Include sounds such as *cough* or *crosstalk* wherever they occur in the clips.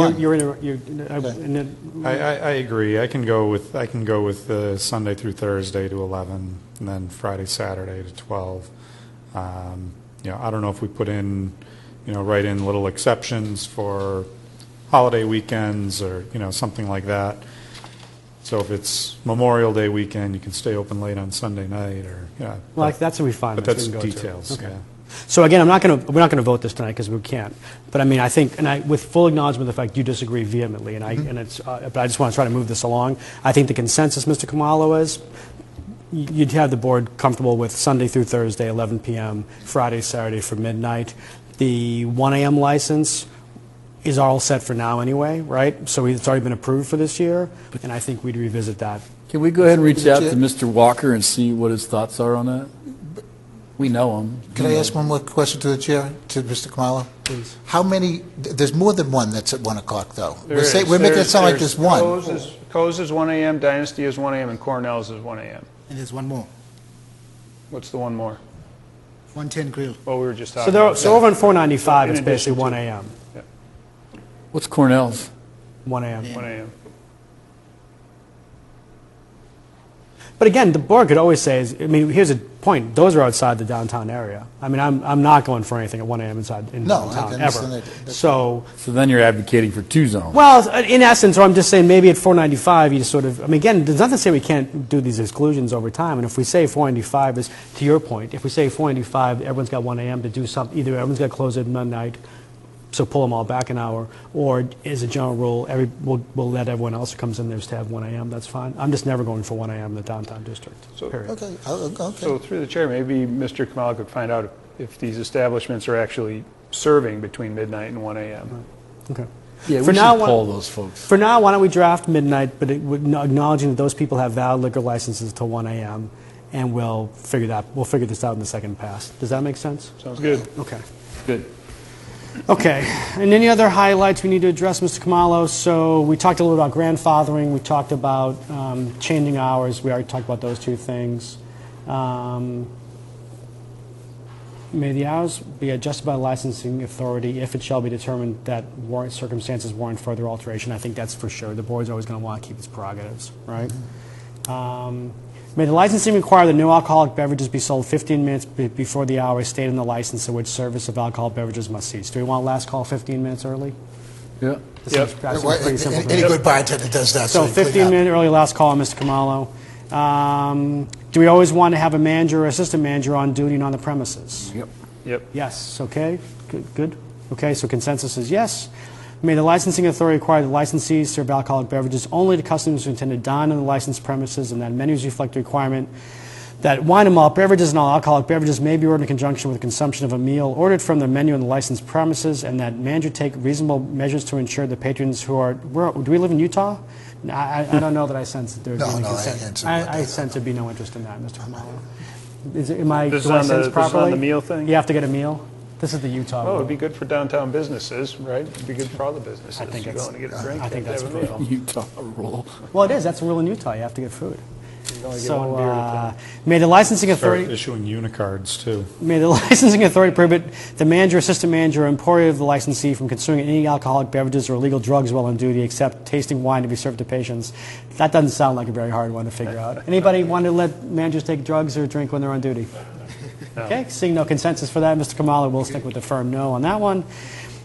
Well, You're in, a- you're, in a- I- and then, I, I, I agree. I can go with, I can go with uh, Sunday through Thursday to 11, and then Friday, Saturday to 12. Um, You know, I don't know if we put in, you know, write in little exceptions for holiday weekends or, you know, something like that. So if it's Memorial Day weekend, you can stay open late on Sunday night, or, yeah. well, that's a refinement. But that's details, yeah. So again, I'm not going to, we're not going to vote this tonight because we can't. But I mean, I think, and I, with full acknowledgement of the fact you disagree vehemently, and I, Mm-hmm. and it's, uh, but I just want to try to move this along. I think the consensus, Mr. Kamalo, is y- you'd have the board comfortable with Sunday through Thursday, 11 PM, Friday, Saturday for midnight. The 1 AM license is all set for now anyway, right? So it's already been approved for this year, and I think we'd revisit that. Can we go ahead and reach out to Chair- Mr. Walker and see what his thoughts are on that? We know him. Can I ask one more question to the chair, to Mr. Kamala? Please. How many, th- there's more than one that's at 1 o'clock, though. We're There say- is. We're making it There's- sound like there's there's one. Coe's is- Coe's is 1 AM, Dynasty is 1 AM, and Cornell's is 1 AM. And there's one more, What's the one more? 110 Grill. Well, we were just So talking there, about. so over on 495, In it's basically addition to- 1 AM, What's Cornell's? 1 AM. 1 AM. But again, the board could always say, is, I mean, here's a point, those are outside the downtown area. I mean, I'm, I'm not going for anything at 1 AM inside, in No, I downtown, can understand ever. that. That's- So, So then you're advocating for two zones. well, in essence, or I'm just saying, maybe at 495, you sort of, I mean, again, there's nothing to say we can't do these exclusions over time, and if we say 495 is, to your point, if we say 495, everyone's got 1 AM to do something, either everyone's got to close at midnight, so pull them all back an hour, or as a general rule, every, we'll, we'll let everyone else who comes in there just have 1 AM, that's fine. I'm just never going for 1 AM in the downtown district, So- period. Okay, oh, okay. So through the chair, maybe Mr. Kamala could find out if these establishments are actually serving between midnight and 1 AM. Okay. Yeah, For we should now, why- poll those folks. For now, why don't we draft midnight, but it would- acknowledging that those people have valid liquor licenses till 1 AM, and we'll figure that, we'll figure this out in the second pass. Does that make sense? Sounds good. Okay. Good. Okay. And any other highlights we need to address, Mr. Kamalo? So we talked a little about grandfathering, we talked about um, changing hours, we already talked about those two things. Um, May the hours be adjusted by licensing authority if it shall be determined that warrant circumstances warrant further alteration. I think that's for sure. The board's always going to want to keep its prerogatives, right? Um, May the licensing require that no alcoholic beverages be sold 15 minutes be- before the hour stated in the license at which service of alcohol beverages must cease. Do we want last call 15 minutes early? *laughs* Yeah. This seems- that seems Well, pretty simple to Any me. any good bartender does that, so So you clean 15 up. minute early last call, Mr. Kamalo. Um, Do we always want to have a manager or assistant manager on duty and on the premises? Yep. Yep. Yes, okay, good, good. Okay, so consensus is yes. May the licensing authority require the licensees serve alcoholic beverages only to customers who intend to dine on the licensed premises, and that menus reflect the requirement that wine and malt beverages and all alcoholic beverages may be ordered in conjunction with consumption of a meal ordered from the menu on the licensed premises, and that manager take reasonable measures to ensure the patrons who are, where, do we live in Utah? I, I- I don't know that I sense that there's No, any no, I consent. answered what I they- sense there'd be no interest in that, Mr. Kamala. Is, it- am I, do I This is on sense the- properly? this is on the meal thing? You have to get a meal? This is the Utah Oh, rule. it'd be good for downtown businesses, right? It'd be good for all the businesses. I think You it's- go in and get a drink. I think have that's to have a meal. brutal. Utah rule. Well, it is, that's the rule in Utah, you have to get food. only get So, one beer at a uh, may the licensing Start authority, issuing unicards, too. may the *laughs* licensing authority prohibit the manager, assistant manager, or employee of the licensee from consuming any alcoholic beverages or illegal drugs while on duty, except tasting wine to be served to patients. That doesn't sound like a very hard one to figure out. Anybody want to let managers take drugs or drink when they're on duty? Okay, seeing no consensus for that, Mr. Kamala will stick with the firm no on that one.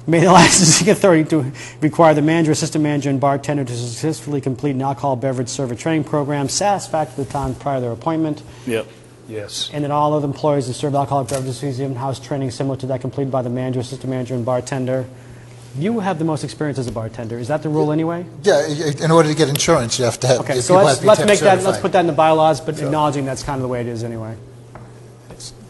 May the *laughs* licensing authority to require the manager, assistant manager, and bartender to successfully complete an alcohol beverage server training program satisfactory to the time prior to their appointment, Yep. Yes. and that all other employees that serve alcoholic beverages receive in-house training similar to that completed by the manager, assistant manager, and bartender. You have the most experience as a bartender. Is that the rule anyway? Yeah, i- i- in order to get insurance, you have to have, if Okay, you so want to let's, be let's tip make that, let's certified. put that in the bylaws, but acknowledging that's kind of the way it is anyway.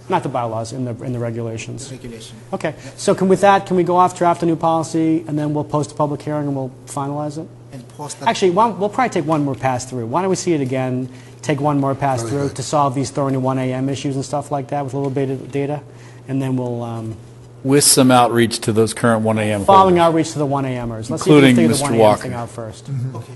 Not the bylaws, in the, in the regulations. Regulation. Okay, so can, with that, can we go off, draft a new policy, and then we'll post a public hearing and we'll finalize it? And post that. Actually, why- we'll probably take one more pass through. Why don't we see it again, take one more pass through to solve these throwing to 1 AM issues and stuff like that with a little bit of data? And then we'll, um, With some outreach to those current 1 a.m. following holders. outreach to the 1 AMers. Let's see if we can Including figure the Mr. 1 AM Walker. thing out first. Mm-hmm. Okay.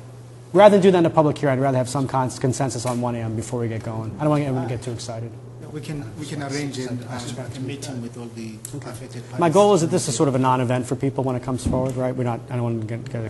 Rather than do that in a public hearing, I'd rather have some cons- consensus on 1 AM before we get going. I don't want everyone to get too excited. No, We can, we can arrange a, a a meeting with all the affected parties. My goal is that this is sort of a non-event for people when it comes forward, right? We're not, I don't want to get, get